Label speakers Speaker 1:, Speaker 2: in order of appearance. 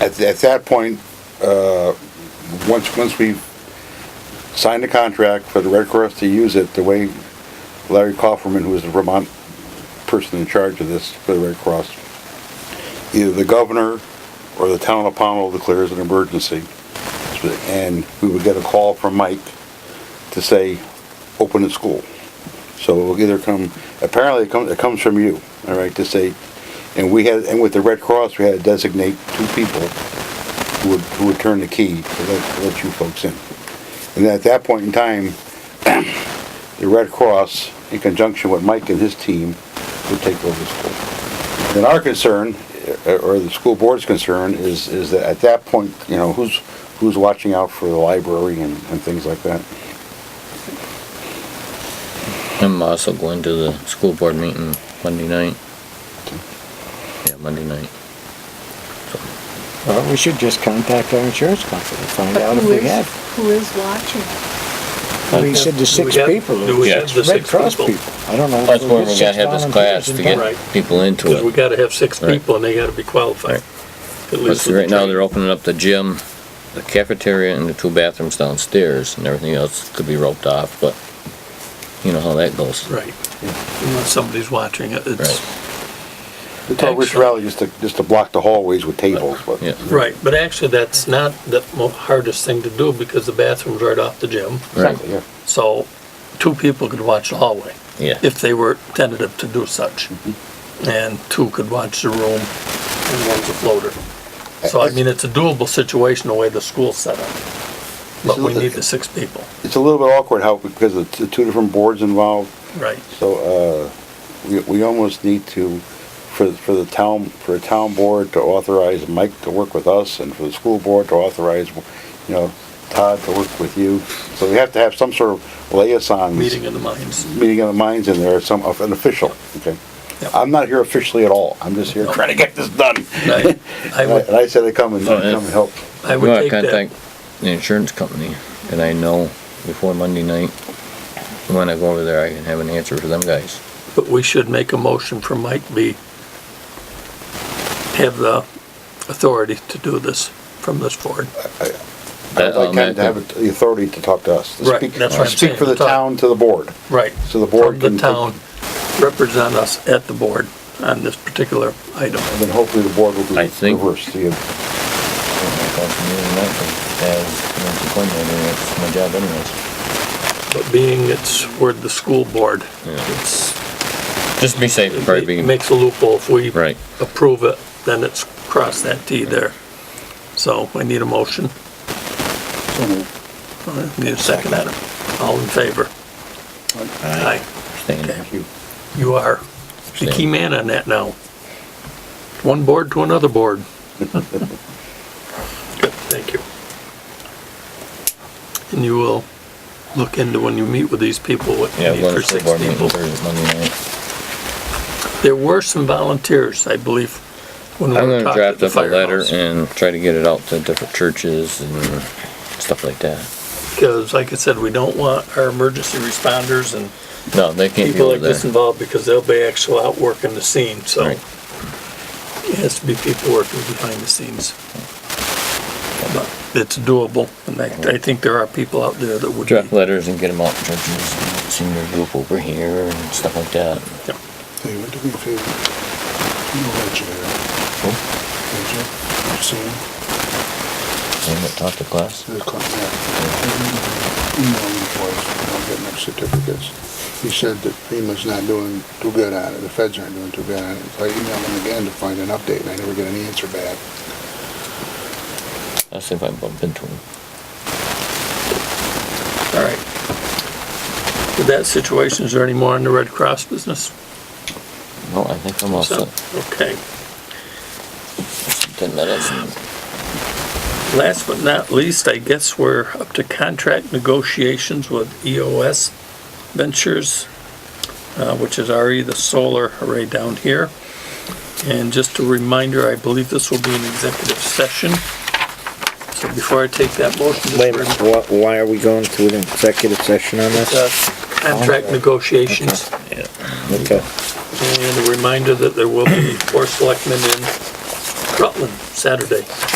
Speaker 1: At, at that point, uh, once, once we signed the contract for the Red Cross to use it, the way Larry Kaufman, who was the Vermont person in charge of this for the Red Cross, either the governor or the town of Pownell declares an emergency. And we would get a call from Mike to say, open the school. So it will either come, apparently it comes, it comes from you, all right, to say, and we had, and with the Red Cross, we had to designate two people who would, who would turn the key to let, to let you folks in. And at that point in time, the Red Cross, in conjunction with Mike and his team, would take over the school. And our concern, eh, or the school board's concern, is, is that at that point, you know, who's, who's watching out for the library and, and things like that?
Speaker 2: I'm also going to the school board meeting Monday night. Yeah, Monday night.
Speaker 3: Well, we should just contact our insurance company, and find
Speaker 4: But
Speaker 3: out if
Speaker 4: who
Speaker 3: we
Speaker 4: is-
Speaker 3: have.
Speaker 4: Who is watching?
Speaker 3: We said the six
Speaker 5: Do we have-
Speaker 3: people.
Speaker 5: do we have
Speaker 3: It's
Speaker 5: the
Speaker 3: Red
Speaker 5: six
Speaker 3: Cross
Speaker 5: people?
Speaker 3: people. I don't know. if
Speaker 2: That's
Speaker 3: we'll
Speaker 2: where
Speaker 3: get
Speaker 2: we
Speaker 3: six
Speaker 2: gotta have this
Speaker 3: volunteers
Speaker 2: class to
Speaker 3: involved.
Speaker 2: get
Speaker 5: Right.
Speaker 2: people into
Speaker 5: Because we
Speaker 2: it.
Speaker 5: gotta have six
Speaker 2: Right.
Speaker 5: people and they gotta be qualified. At
Speaker 2: But
Speaker 5: least
Speaker 2: see,
Speaker 5: with
Speaker 2: right now,
Speaker 5: the
Speaker 2: they're opening up the gym, the cafeteria, and the two bathrooms downstairs, and everything else could be roped off, but you know how that goes.
Speaker 5: training. Right. Unless somebody's watching it,
Speaker 2: Right.
Speaker 5: it's,
Speaker 1: We told Rich
Speaker 5: Excellent.
Speaker 1: Rowley just to, just to block the hallways with tables, but.
Speaker 2: Yeah,
Speaker 5: right, but actually, that's not the mo- hardest thing to do because the bathroom's right off the gym.
Speaker 2: right,
Speaker 1: Exactly, yeah.
Speaker 5: So two people could watch the hallway
Speaker 2: yeah.
Speaker 5: if they were tentative to do such. And two could watch the room and one's a floater. So I mean, it's a doable situation the way the school's set up. But we need the six people,
Speaker 1: It's a little bit awkward how, because of the two different boards involved,
Speaker 5: right?
Speaker 1: so, uh, we, we almost need to, for, for the town, for a town board to authorize Mike to work with us, and for the school board to authorize, you know, Todd to work with you. So we have to have some sort of liaison.
Speaker 5: Meeting of the minds.
Speaker 1: Meeting of the minds in there, some, of an official, okay?
Speaker 5: Yep.
Speaker 1: I'm not here officially at all, I'm just here trying to get this done.
Speaker 5: I I
Speaker 1: And I-
Speaker 5: would,
Speaker 1: and I said I'd come and,
Speaker 2: Oh,
Speaker 1: come
Speaker 2: yeah.
Speaker 1: and help.
Speaker 2: Well,
Speaker 5: I
Speaker 2: I
Speaker 5: would take that.
Speaker 2: contact the insurance company, and I know before Monday night, when I go over there, I can have an answer for them guys.
Speaker 5: But we should make a motion for Mike B. Have the authority to do this from this board.
Speaker 1: I'd
Speaker 2: That- um,
Speaker 1: like
Speaker 2: on
Speaker 1: Ken
Speaker 2: that
Speaker 1: to have the authority to talk to us. to
Speaker 5: Right,
Speaker 1: speak-
Speaker 5: that's what I'm
Speaker 1: Speak
Speaker 5: saying,
Speaker 1: for the
Speaker 5: to talk.
Speaker 1: town to the board.
Speaker 5: Right.
Speaker 1: So the board
Speaker 5: From
Speaker 1: can
Speaker 5: the
Speaker 1: take-
Speaker 5: town, represent us at the board on this particular item.
Speaker 1: And then hopefully the board will do
Speaker 2: I think-
Speaker 1: reverse to you.
Speaker 2: That's my job anyways.
Speaker 5: But being it's, we're the school board,
Speaker 2: Yeah.
Speaker 5: it's,
Speaker 2: Just be safe, probably
Speaker 5: it
Speaker 2: be,
Speaker 5: makes a loophole. If we
Speaker 2: right.
Speaker 5: approve it, then it's cross that T there. So I need a motion. Uh, Need a second, Adam. All in favor? Aye.
Speaker 2: Staying there.
Speaker 5: You are the key man on that now. One board to another board. Good, thank you. And you will look into when you meet with these people, what you
Speaker 2: Yeah,
Speaker 5: need
Speaker 2: going
Speaker 5: for
Speaker 2: to school
Speaker 5: six
Speaker 2: board meeting
Speaker 5: people.
Speaker 2: Thursday, Monday night.
Speaker 5: There were some volunteers, I believe, when we
Speaker 2: I'm
Speaker 5: were
Speaker 2: gonna
Speaker 5: talking
Speaker 2: draft
Speaker 5: at the
Speaker 2: up a letter
Speaker 5: firehouse.
Speaker 2: and try to get it out to different churches and stuff like that.
Speaker 5: Because like I said, we don't want our emergency responders and
Speaker 2: No, they can't be
Speaker 5: people
Speaker 2: over
Speaker 5: like this
Speaker 2: there.
Speaker 5: involved because they'll be actually out working the scene, so.
Speaker 2: Right.
Speaker 5: It has to be people working behind the scenes. But it's doable, and I, I think there are people out there that would be.
Speaker 2: Draft letters and get them out to churches, and senior group over here and stuff like that.
Speaker 6: Hey, what do we feel? You know that you're there. Did you? I've seen him.
Speaker 2: And talk to class.
Speaker 6: They're cutting that. Emailing him twice, not getting their certificates. He said that FEMA's not doing too good on it, the feds aren't doing too good on it. So I emailed him again to find an update, and I never get an answer back.
Speaker 2: I'll see if I bump into them.
Speaker 5: All right. With that situation, is there any more on the Red Cross business?
Speaker 2: No, I think I'm all
Speaker 5: So,
Speaker 2: set.
Speaker 5: Okay.
Speaker 2: Ten minutes. and-
Speaker 5: Last but not least, I guess we're up to contract negotiations with EOS Ventures, uh, which is already the solar array down here. And just a reminder, I believe this will be an executive session. So before I take that motion, just
Speaker 3: Wait a minute, wha- why are we going to an executive session on
Speaker 5: uh,
Speaker 3: this?
Speaker 5: contract negotiations.
Speaker 3: Okay.
Speaker 5: And a reminder that there will be four selectmen in Rutland Saturday.